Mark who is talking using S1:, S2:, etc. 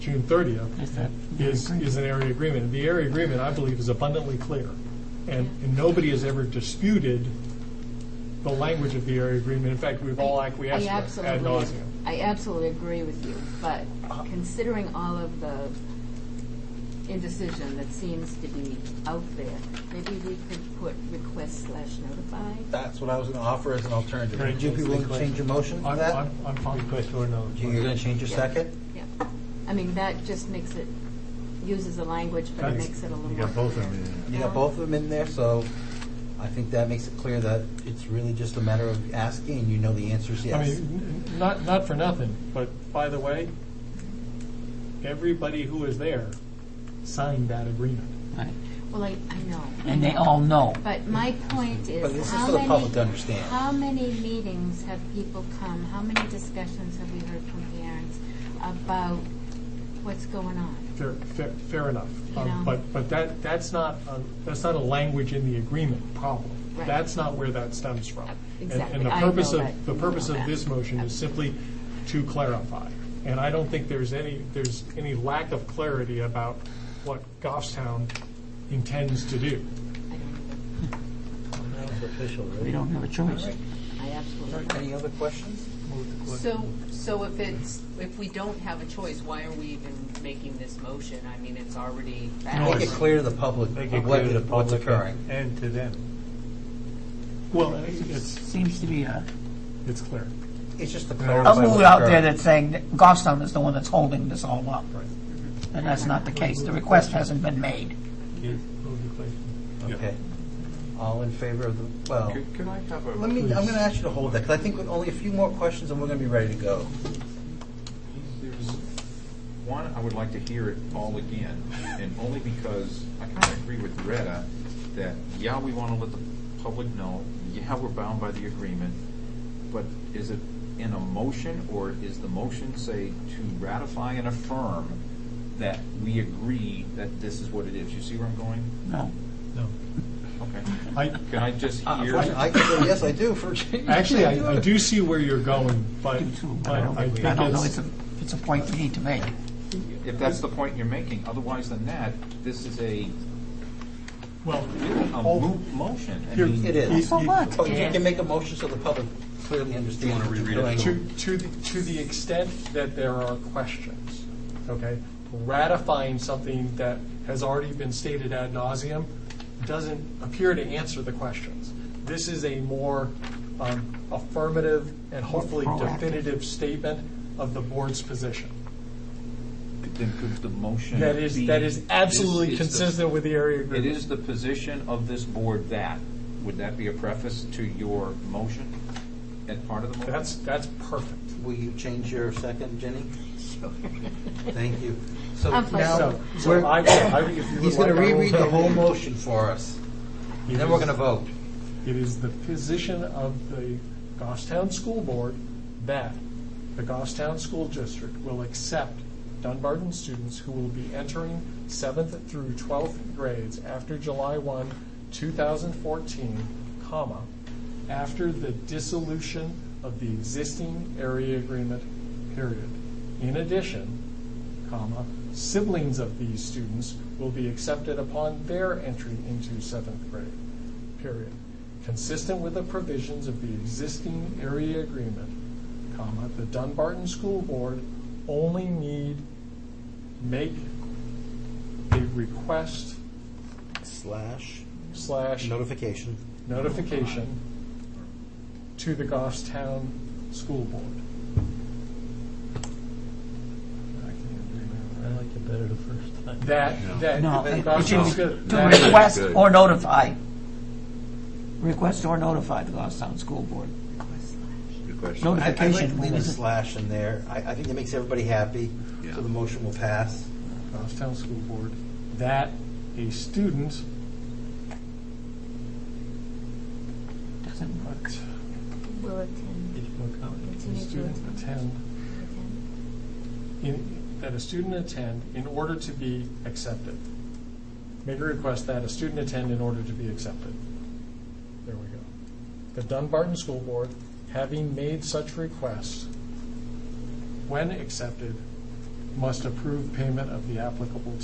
S1: June 30th
S2: Is that-
S1: is, is an area agreement. The area agreement, I believe, is abundantly clear, and, and nobody has ever disputed the language of the area agreement. In fact, we've all acquiesced to it
S3: I
S1: ad
S3: absolutely,
S1: nauseam.
S3: I absolutely agree with you, but considering all of the indecision that seems to be out there, maybe we could put request slash notify?
S4: That's what I was going to offer as an alternative.
S1: Right.
S4: Would you be willing to change your motion to
S1: I'm,
S4: that?
S1: I'm, I'm fine.
S5: or no?
S4: You're going to change your
S3: Yeah.
S4: second?
S3: Yeah, I mean, that just makes it, uses the language, but it
S1: That's-
S3: makes it a little
S5: You
S3: more.
S5: got both of
S3: clear.
S5: them
S4: You got both of them in there, so I think that makes it clear that it's really just a matter of asking, and you know the answer is
S1: I
S4: yes.
S1: mean, n- not, not for nothing, but by the way, everybody who was there signed that agreement.
S2: Right.
S3: Well, I, I know.
S2: And they all know.
S3: But my point
S4: But
S3: is,
S4: this is
S3: how
S4: for the public to
S3: many,
S4: understand.
S3: how many meetings have people come, how many discussions have we heard from parents about what's going on?
S1: Fair, fair, fair enough. Um,
S3: You know.
S1: But, but that, that's not, a- that's not a language in the agreement problem.
S3: Right.
S1: That's not where that stems from. And-
S3: Exactly.
S1: And the
S3: I know
S1: purpose of,
S3: that.
S1: the purpose
S3: I know
S1: of this
S3: that.
S1: motion is simply to clarify. And I don't think there's any, there's any lack of clarity about what Goffstown intends to do.
S3: I don't know.
S4: official,
S2: We don't have a choice.
S3: I absolutely.
S4: Any other questions?
S6: So, so if it's, if we don't have a choice, why are we even making this motion? I mean, it's already.
S4: Make it clear to the public of what- what's occurring.
S5: And to them.
S1: Well, it's,
S2: Seems to be a,
S1: it's clear.
S4: It's just to
S2: a
S4: clarify.
S2: mood
S4: what's
S2: out there
S4: occurring.
S2: that's saying that Goffstown is the one that's holding this all up. And that's not the case. The request hasn't been made.
S4: Okay. All in favor of the, well,
S7: Could could I have a,
S4: let me, I'm going to ask you to hold that, because I think with only a few more questions, and we're going to be ready to go.
S7: there's, one, I would like to hear it all again, and only because I kind of agree with Retta that, yeah, we want to let the public know, yeah, we're bound by the agreement, but is it in a motion, or is the motion, say, to ratify and affirm that we agree that this is what it is? You see where I'm going?
S2: No.
S1: No.
S7: Okay.
S1: I,
S7: Can I just hear?
S4: I can say, yes, I do, for.
S1: actually, I I do see where you're going, but,
S2: do too,
S1: but I think
S2: I don't know,
S1: it's,
S2: it's a, it's a point we need to make.
S7: If that's the point you're making, otherwise than that, this is a,
S1: well,
S7: really a
S1: Oh.
S7: moot motion. I
S1: Here-
S7: mean-
S4: It is.
S2: So what?
S4: Oh, you can make a motion so the public clearly understands what you're doing.
S1: To, to, the- to the extent that there are questions, okay? Ratifying something that has already been stated ad nauseum doesn't appear to answer the questions. This is a more um, affirmative and hopefully
S2: Proactive.
S1: definitive statement of the board's position.
S7: Then could the motion
S1: That is,
S7: be-
S1: that is absolutely
S7: is- is the-
S1: consistent with the area
S7: It
S1: agreement.
S7: is the position of this board that, would that be a preface to your motion and part of the motion?
S1: That's, that's perfect.
S4: Will you change your second, Jenny? Thank you. So
S3: I'm flexible.
S4: now,
S1: So,
S4: we're-
S1: so I, I- if you would
S4: he's
S1: like,
S4: going
S1: I
S4: to
S1: will-
S4: reread the whole motion for us,
S1: It
S4: and then we're
S1: is-
S4: going to vote.
S1: It is the position of the Goffstown School Board that the Goffstown School District will accept Dunbarton students who will be entering seventh through twelfth grades after July one, two thousand fourteen, comma, after the dissolution of the existing area agreement, period. In addition, comma, siblings of these students will be accepted upon their entry into seventh grade, period. Consistent with the provisions of the existing area agreement, comma, the Dunbarton School Board only need make a request
S4: Slash
S1: slash
S4: notification.
S1: notification to the Goffstown School Board.
S5: I liked it better the first time.
S1: That, that.
S2: No, it it should
S1: Goffstown's
S2: be
S1: good.
S2: to
S1: That-
S2: request
S7: good.
S2: or notify. Request or notify the Goffstown School Board.
S4: I- I'd like to
S2: Notification.
S4: leave a
S2: is it-
S4: slash in there. I, I think that makes everybody happy, so the motion will pass.
S1: Goffstown School Board, that a student,
S2: Doesn't work.
S1: a
S3: Will attend, continue to
S1: student
S3: attend.
S1: attend, in- that a student attend in order to be accepted. Make a request that a student attend in order to be accepted. There we go. The Dunbarton School Board, having made such request, when accepted, must approve payment of the applicable